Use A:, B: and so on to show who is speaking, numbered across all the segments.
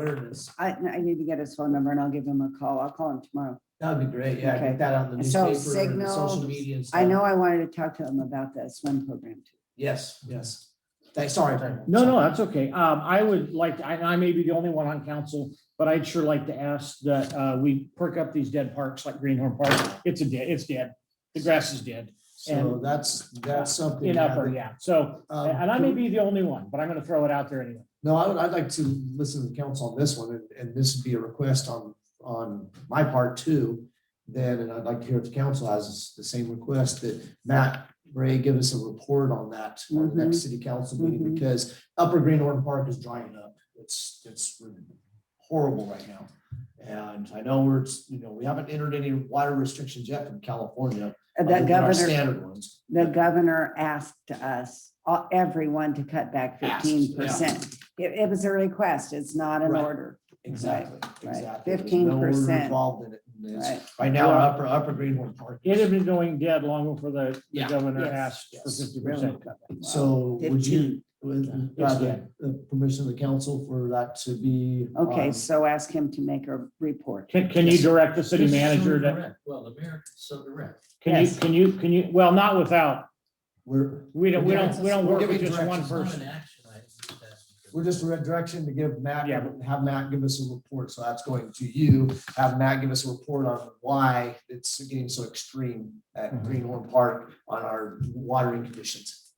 A: awareness.
B: I, I need to get his phone number and I'll give him a call. I'll call him tomorrow.
A: That'd be great. Yeah,
B: Okay.
A: get that on the
B: So
A: newspaper and the social
B: signals,
A: media and stuff.
B: I know I wanted to talk to him about that swim program too.
A: Yes, yes. Thanks, sorry. Tyrone.
C: No, no, that's okay. Um, I would like, I, I may be the only one on council, but I'd sure like to ask that, uh, we perk up these dead parks like Greenhorn Park. It's a dead, it's dead. The grass is dead
A: So that's, that's something.
C: in
A: yeah,
C: upper,
A: that-
C: yeah. So,
A: um,
C: and I may be the only one, but I'm gonna throw it out there anyway.
A: No, I would, I'd like to listen to the council on this one, and, and this would be a request on, on my part too. Then, and I'd like to hear if the council has the same request that Matt Ray give us a report on that on the next city council meeting,
B: Mhm.
A: because Upper Greenhorn Park is drying up. It's, it's horrible right now. And I know we're, you know, we haven't entered any water restrictions yet from California.
B: Uh,
A: other
B: The
A: than our
B: governor,
A: Standard ones.
B: the governor asked us, all- everyone to cut back
A: Asked, yeah.
B: fifteen percent. It, it was a request. It's not an
A: Right.
B: order,
A: Exactly,
B: right.
A: exactly. There's
B: 15%.
A: no order Involved in it. and it's-
B: right?
A: Right now, our upper, upper Greenhorn Park.
C: It had been going dead long before the, the
A: Yeah.
C: governor
B: Yes,
C: asked for
A: yes.
C: fifty
B: Really
C: percent.
B: cut back. Wow.
A: So would you, with
C: Yeah.
A: uh, the the permission of the council for that to be? um,
B: Okay,
A: on-
B: so ask him to make a report.
C: Can, can you
A: Yes.
C: direct the city
D: This is
C: manager
D: Southern
C: to,
D: Rec. Well, the mayor, Southern Rec.
C: can you,
B: Yes.
C: can you, can you, well, not without,
A: We're,
C: we don't, we
A: Yeah,
C: don't, we don't
A: we're
C: work with
A: giving
C: just one
A: directions,
D: It's not
C: person.
D: an action item. it's just asking for-
A: we're just a red direction to give Matt,
C: Yeah.
A: have Matt give us a report. So that's going to you. Have Matt give us a report on why it's getting so extreme at
C: Mhm.
A: Greenhorn Park on our watering conditions.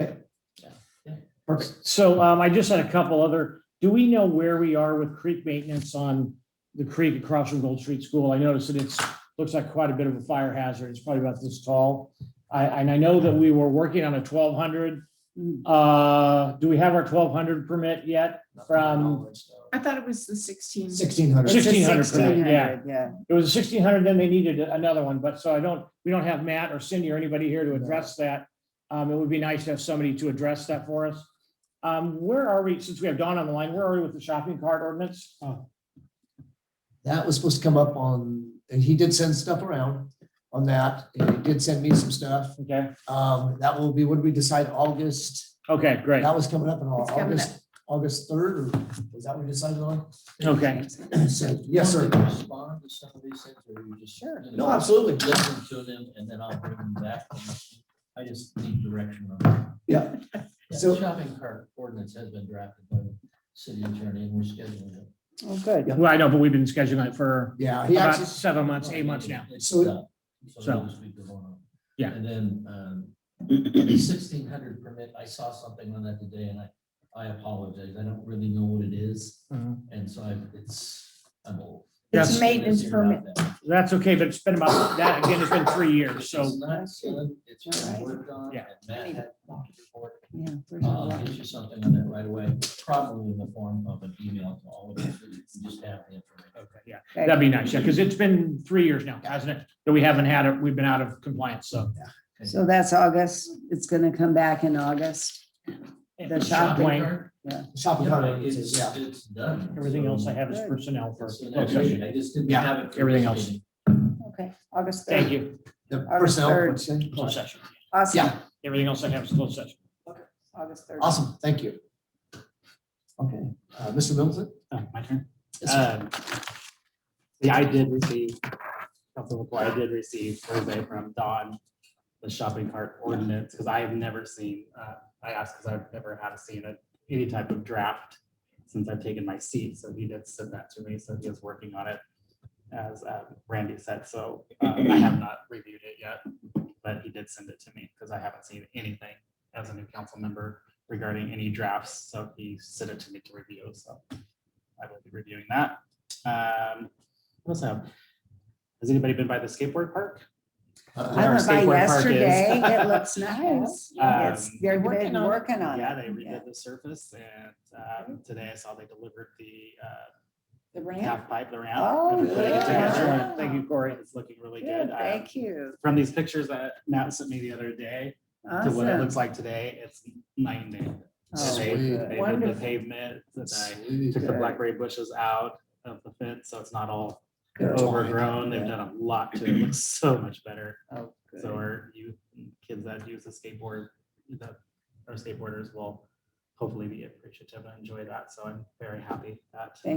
A: Okay.
D: Yeah. Yeah.
A: Perfect.
C: So um, I just had a couple other, do we know where we are with creek maintenance on the creek across from Gold Street School? I noticed that it's, looks like quite a bit of a fire hazard. It's probably about this tall. I, and I know that we were working on a twelve hundred.
B: Hmm,
C: Uh, do we have our twelve hundred permit yet? From,
E: I thought it was the sixteen.
A: Sixteen hundred.
B: It's a
C: 1600 for that,
B: 1600, Yeah,
C: it was sixteen hundred, then they needed another one, but so I don't, we don't have Matt or Cindy or anybody here to address that. Um, it would be nice to have somebody to address that for us. Um, where are we, since we have Dawn on the line, where are we with the shopping cart ordinance?
A: That was supposed to come up on, and he did send stuff around on that. and He did send me some stuff.
C: Okay,
A: Um, that will be, what did we decide, August?
C: okay, great.
A: That was coming up in Au-
E: It's coming
A: August, August third, or was that what we decided on?
C: Okay.
A: So, yes,
D: Do you
A: sir.
D: want me to Respond to some of these things or you just. Sure.
A: No, absolutely.
D: Listen to them and then I'll bring them back. I just need direction on.
A: Yeah.
D: that.
A: So-
D: Yeah, Shopping cart ordinance has been drafted by the city attorney and we're scheduling it.
B: oh, good.
C: Well, I know, but we've been scheduling it for
A: Yeah, he
C: about
A: actually,
C: seven months, eight months now.
D: It's
A: So-
D: done.
C: so-
D: So this week we're going on.
C: Yeah.
D: And then, um, sixteen hundred permit, I saw something on that today and I, I apologize. I don't really know what it is.
C: Mhm.
D: And so I, it's, I'm old.
C: It's
D: Yes.
E: maintenance
D: Figure out that.
C: That's okay, but it's been about, that again, it's been three years,
D: It's
C: so,
D: not good. It's been
B: Alright.
D: worked on.
C: Yeah.
D: and Matt had walked the board.
B: Yeah. there's a
A: Um,
D: I'll
B: lot.
D: get you something on that right away, probably in the form of an email to all of you. so you can Just have the information.
C: okay, yeah,
B: Okay.
C: that'd be nice, yeah, because it's been three years now, hasn't it? That we haven't had it, we've been out of compliance, so.
B: So that's August. It's gonna come back in August. The shopping
C: Wayne,
D: cart?
A: shopping
D: Yeah,
A: cart,
D: it's,
A: yeah,
D: it's done.
C: Everything else I
D: So
C: have is personnel for.
D: it's an
C: closed session.
D: action. I just didn't
A: Yeah,
D: have it. for
C: everything
D: this
C: else.
D: meeting.
B: Okay, August
C: Thank
B: third.
C: you,
A: the
B: Our
A: personnel.
B: third-
A: what's that?
C: closed session.
B: Awesome.
A: Yeah,
C: Everything else I have is closed session.
B: August third.
A: awesome, thank you. Okay, uh, Mr. Middleton?
C: Oh, My turn.
A: Yes, sir.
F: Um, Yeah, I did receive, Council McCoy, I did receive survey from Don, the shopping cart ordinance, because I have never seen, uh, I asked because I've never had seen a- any type of draft since I've taken my seat, so he did send that to me, so he is working on it, as um, Randy said, so uh, I have not reviewed it yet, but he did send it to me, because I haven't seen anything as a new council member regarding any drafts, so he sent it to me to review, so I will be reviewing that. Um, what else I have? Has anybody been by the skateboard park?
B: I
F: our
B: went by
F: skateboard park is.
B: yesterday. It looks nice.
F: Um,
B: It's, they're
F: working
B: been
F: on it.
B: working on it.
F: Yeah, they redid the surface and um, today I saw they delivered the uh,
B: The
F: half pipe, the ramp.
B: Oh,
F: and put it together.
B: yeah.
C: Thank you, Corey.
F: It's looking really
B: Good,
F: good. Um,
B: thank you.
F: From these pictures that Matt sent me the other day to what it
B: Awesome.
F: looks like today, it's night and day.
B: Oh,
F: They-
A: Sweet.
F: They moved the
B: Wonderful.
F: pavement, and I
A: Sweet.
F: took the
B: Good.
F: blackberry bushes out of the fence, so it's not all
A: Good.
F: overgrown. They've done a lot to it. It looks so much better.
B: Oh, good.
F: So our youth, and kids that use the skateboard, that are skateboarders will hopefully be appreciative and enjoy that. So I'm very happy that.